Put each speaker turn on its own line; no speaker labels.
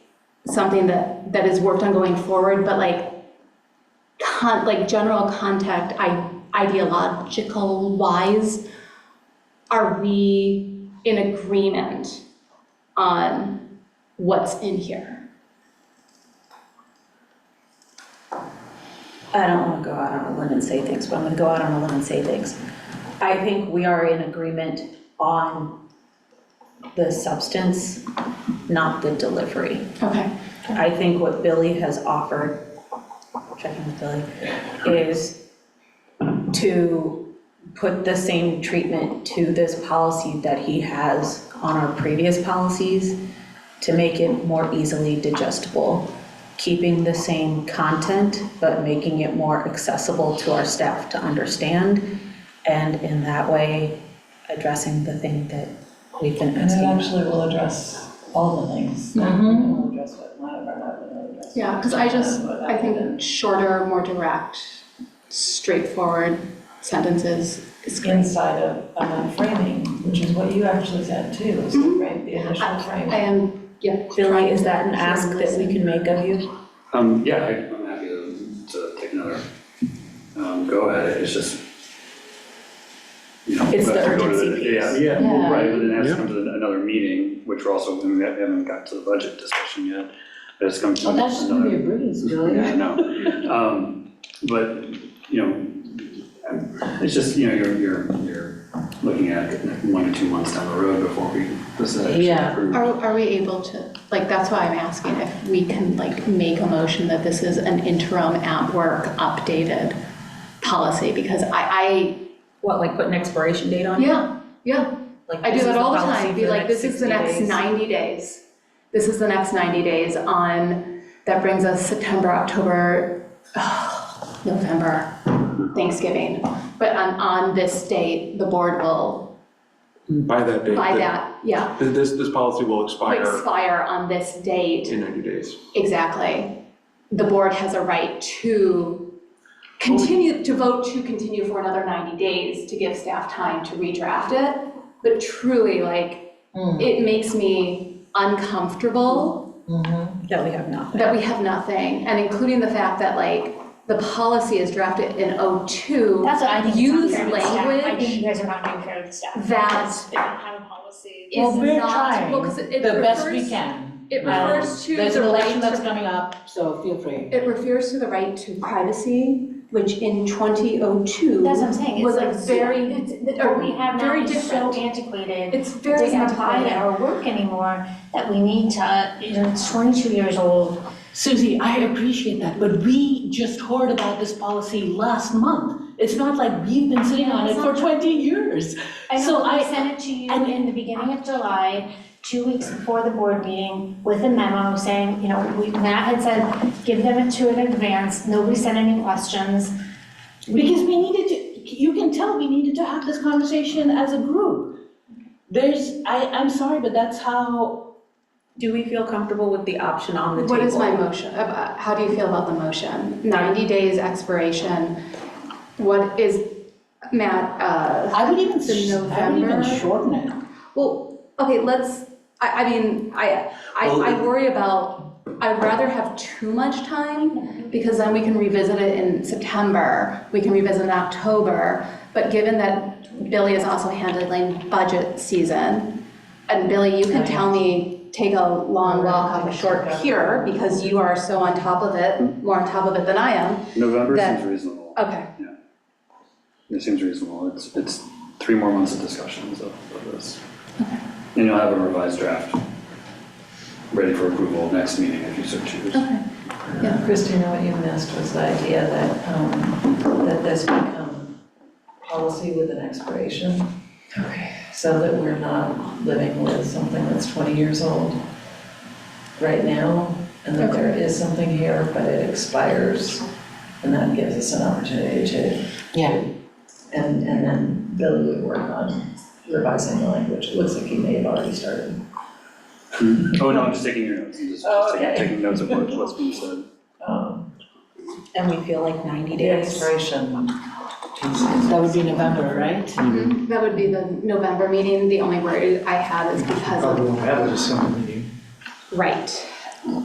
something that, that is worked on going forward, but like, con, like general contact, I, ideological wise, are we in agreement on what's in here?
I don't want to go out on a limb and say things, but I'm going to go out on a limb and say things. I think we are in agreement on the substance, not the delivery.
Okay,
I think what Billy has offered, checking with Billy, is to put the same treatment to this policy that he has on our previous policies to make it more easily digestible, keeping the same content, but making it more accessible to our staff to understand. And in that way, addressing the thing that we've been
And it
asking.
actually will address all the things.
Mhm.
It'll address what none of our other addresses.
yeah, because I just,
But
I
other
think shorter, more direct, straightforward sentences is
than
great.
Inside of, um, framing, which is what you actually said too, is the frame, the initial
Mm-hmm. I
framing.
am, yeah.
Billy,
trying
is
to
that an
hear
ask
and
that we
listen.
can make of you?
Um, yeah, I- I'm happy to, to take another, um, go at it, it's just, you know.
It's
we'll have
the
to go to
urgency piece.
Yeah, yeah,
Yeah.
well, right, and then it has to come to the- another meeting, which we're also, I mean, we haven't got to the budget discussion yet, but it's coming to
Well,
another.
that's gonna be a breeze,
Yeah, I
really.
know, um, but, you know, I'm- it's just, you know, you're, you're, you're looking at one or two months down the road before we, this is actually
Yeah.
approved.
Are, are we able to, like, that's why I'm asking if we can, like, make a motion that this is an interim at work updated policy, because I,
What, like put an expiration date
I,
on it?
yeah, yeah.
Like,
I do
this is
that all the
policy
time,
for
be like, this is the
60
next
days."
ninety days. This is the next ninety days on, that brings us September, October, November, Thanksgiving. But on, on this date, the board will,
By that date.
by
the-
that, yeah,
th- This, this policy will expire
expire on this date.
in 90 days.
Exactly. The board has a right to continue, to vote to continue for another 90 days to give staff time to redraft it. But truly, like,
Hmm.
Mm.
it makes me uncomfortable
Mhm.
That we have not.
that we have nothing, and including the fact that, like, the policy is drafted in '02.
That's what I think is
Use
not fair to staff. I think
language
you guys are not being fair to staff.
that-
because They don't have a policy.
is
Well,
not.
Well, we're trying
well, 'cause it- it
the best we
refers-
can.
It
Um,
refers to the right
There's an election
to
that's coming up, so feel free.
It refers to the right to privacy, which in 2002.
That's what I'm saying,
was
it's
a
like,
very-
very, what we have now
very
is so
different.
antiquated.
It's very
Doesn't apply to
antiquated.
our work anymore, that we need to, you know, it's twenty-two years old.
Susie, I appreciate that, but we just heard about this policy last month. It's not like we've been sitting
No,
on it
it's
for
not.
twenty years.
I
So
know, I
I-
sent it to you
and-
in the beginning of July, two weeks before the board meeting, with a memo saying, you know, we, Matt had said, give them it to in advance, nobody sent any questions.
Because we needed to, you can tell we needed to have this conversation as a group. There's, I, I'm sorry, but that's how,
Do we feel comfortable with the option on the table?
What is my motion, about- how do you feel about the motion? 90 days expiration, what is, Matt, uh,
I would even,
The
sh- I would even
November-
shorten it.
well, okay, let's, I, I mean, I, I
Well,
I worry about, I'd rather have too much time, because then we can revisit it in September, we can revisit it in October, but given that Billy is also handling budget season, and Billy, you can tell me, take a long walk off a short pier, because you are so on top of it, more on top of it than I am,
November
that-
seems reasonable.
okay.
It seems reasonable. It's, it's three more months of discussions of of this. And you'll have a revised draft ready for approval next meeting if you so choose.
Christina, what you missed was the idea that, um, that this become policy with an expiration. Okay. So that we're not living with something that's twenty years old right now, and that there is something here, but it expires. And that gives us an opportunity to,
Yeah.
and, and then Billy would work on revising the language, it looks like he may have already started.
Oh, no, I'm just taking your notes. I'm just
Oh,
just taking-
okay.
taking notes of what- what's being said.
Um,
And we feel like 90
The
days.
expiration piece is.
That would be November, right?
That would be the November meeting, the only worry I have is because of,
Probably won't have a December meeting.
right,